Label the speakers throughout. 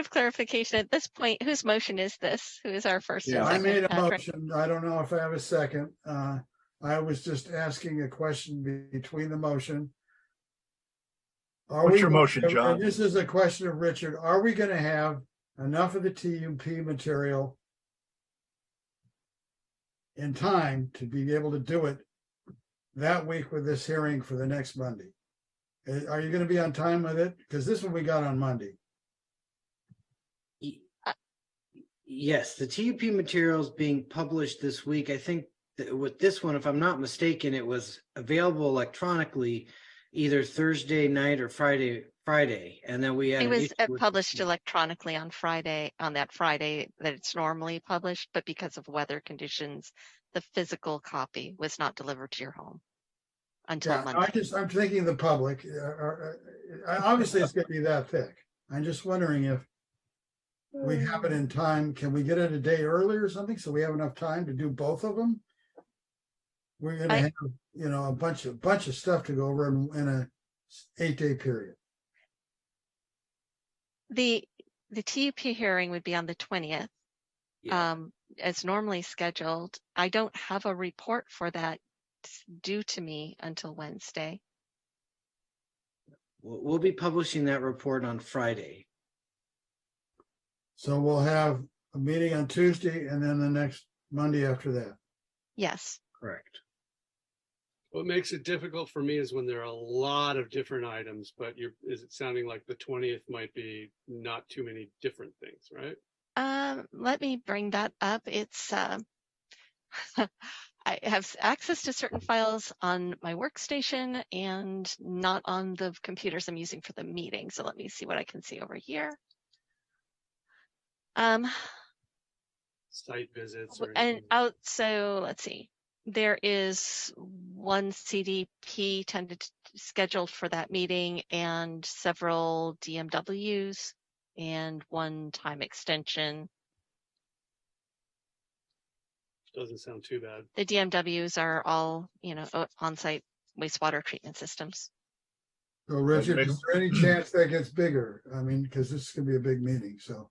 Speaker 1: of clarification at this point, whose motion is this? Who is our first? and
Speaker 2: Yeah,
Speaker 3: I
Speaker 1: second?
Speaker 3: made a
Speaker 1: Uh, Fran-
Speaker 3: motion. I don't know if I have a second. Uh, I was just asking a question be- between the motion. Are
Speaker 4: What's
Speaker 3: we-
Speaker 4: your motion,
Speaker 3: and
Speaker 4: John?
Speaker 3: This is a question of Richard. Are we gonna have enough of the TUP material in time to be able to do it that week with this hearing for the next Monday? Uh, Are you gonna be on time with it? Because this one we got on Monday.
Speaker 2: Y-
Speaker 1: Uh,
Speaker 2: Yes, the TUP materials being published this week. I think that with this one, if I'm not mistaken, it was available electronically either Thursday night or Friday, Friday. And then we had.
Speaker 1: It
Speaker 2: an
Speaker 1: was
Speaker 2: issue
Speaker 1: uh,
Speaker 2: with-
Speaker 1: published electronically on Friday, on that Friday that it's normally published, but because of weather conditions, the physical copy was not delivered to your home until
Speaker 3: Yeah, I
Speaker 1: Monday.
Speaker 3: just, I'm thinking the public, uh, are- uh, uh, obviously it's gonna be that thick. I'm just wondering if we
Speaker 1: Mm.
Speaker 5: Mm.
Speaker 3: have it in time, can we get it a day earlier or something, so we have enough time to do both of them? We're gonna
Speaker 1: I-
Speaker 3: have, you know, a bunch of, bunch of stuff to go over in, in a eight day period.
Speaker 1: The, the TUP hearing would be on the twentieth.
Speaker 2: Yeah.
Speaker 1: um, as normally scheduled. I don't have a report for that s- due to me until Wednesday.
Speaker 2: We'll, we'll be publishing that report on Friday.
Speaker 3: So we'll have a meeting on Tuesday and then the next Monday after that.
Speaker 1: Yes,
Speaker 2: Correct.
Speaker 5: What makes it difficult for me is when there are a lot of different items, but you're, is it sounding like the twentieth might be not too many different things, right?
Speaker 1: um, let me bring that up. It's, um, I have s- access to certain files on my workstation and not on the computers I'm using for the meeting. So let me see what I can see over here. Um,
Speaker 5: Site visits or.
Speaker 1: W- And
Speaker 5: anything.
Speaker 1: out, so let's see, there is one CDP tended scheduled for that meeting and several DMWs and one time extension.
Speaker 5: Doesn't sound too bad.
Speaker 1: The DMWs are all, you know, o- on-site wastewater treatment systems.
Speaker 3: So Richard,
Speaker 4: makes-
Speaker 3: is there any chance that gets bigger? I mean, because this is gonna be a big meeting, so.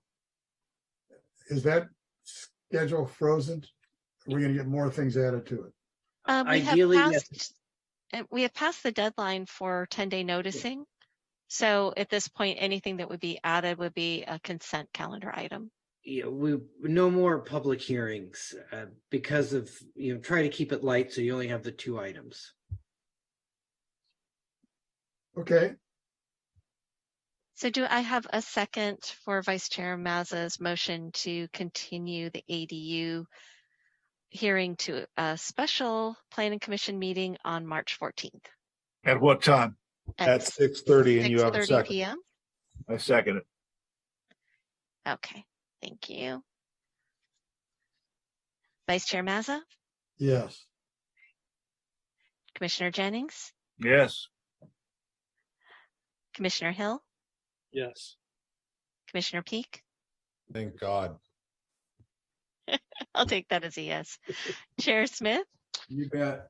Speaker 3: Is that schedule frozen? We're gonna get more things added to it.
Speaker 1: Um, we have
Speaker 2: Ideally, yes.
Speaker 1: passed, uh, we have passed the deadline for ten day noticing. So at this point, anything that would be added would be a consent calendar item.
Speaker 2: Yeah, we, no more public hearings, uh, because of, you know, try to keep it light, so you only have the two items.
Speaker 3: Okay,
Speaker 1: So do I have a second for Vice Chair Mazza's motion to continue the ADU hearing to a special planning commission meeting on March fourteenth?
Speaker 4: At what time?
Speaker 6: At six thirty and you have a second.
Speaker 1: PM?
Speaker 4: I second it.
Speaker 1: Okay, thank you. Vice Chair Mazza,
Speaker 3: yes.
Speaker 1: Commissioner Jennings,
Speaker 4: Yes.
Speaker 1: Commissioner Hill,
Speaker 5: Yes.
Speaker 1: Commissioner Peak.
Speaker 6: Thank God.
Speaker 1: I'll take that as a yes. Chair Smith,
Speaker 3: You bet.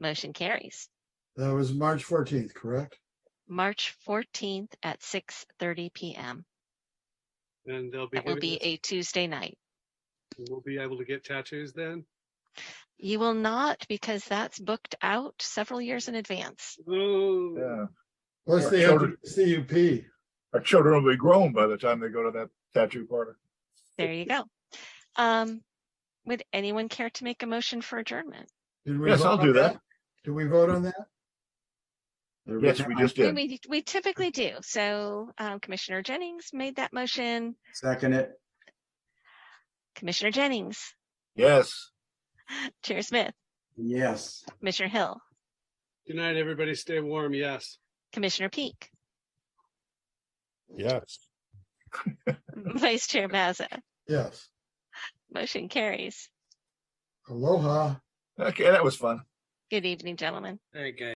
Speaker 1: motion carries.
Speaker 3: That was March fourteenth, correct?
Speaker 1: March fourteenth at six thirty PM.
Speaker 5: And they'll be.
Speaker 1: That will
Speaker 5: giving
Speaker 1: be
Speaker 5: us-
Speaker 1: a Tuesday night.
Speaker 5: We'll be able to get tattoos then?
Speaker 1: You will not because that's booked out several years in advance.
Speaker 5: Oh,
Speaker 4: Yeah.
Speaker 3: Plus
Speaker 4: Yeah,
Speaker 3: they have
Speaker 4: so
Speaker 3: the CUP.
Speaker 4: Our children will be grown by the time they go to that tattoo party.
Speaker 1: There you go. Um, would anyone care to make a motion for adjournment?
Speaker 3: Did we
Speaker 4: Yes,
Speaker 3: vote
Speaker 4: I'll
Speaker 3: on
Speaker 4: do that.
Speaker 3: Did we vote on that?
Speaker 4: Yes, we just
Speaker 1: We-
Speaker 4: did.
Speaker 1: We, we typically do. So um, Commissioner Jennings made that motion.
Speaker 7: Second it,
Speaker 1: Commissioner Jennings,
Speaker 4: Yes.
Speaker 1: Chair Smith,
Speaker 7: yes.
Speaker 1: Commissioner Hill,
Speaker 5: good night, everybody. Stay warm. Yes.
Speaker 1: Commissioner Peak,
Speaker 6: Yes.
Speaker 1: Vice Chair Mazza.
Speaker 3: Yes.
Speaker 1: Motion carries.
Speaker 3: Aloha.
Speaker 4: Okay, that was fun.
Speaker 1: Good evening, gentlemen.
Speaker 2: All right, guys.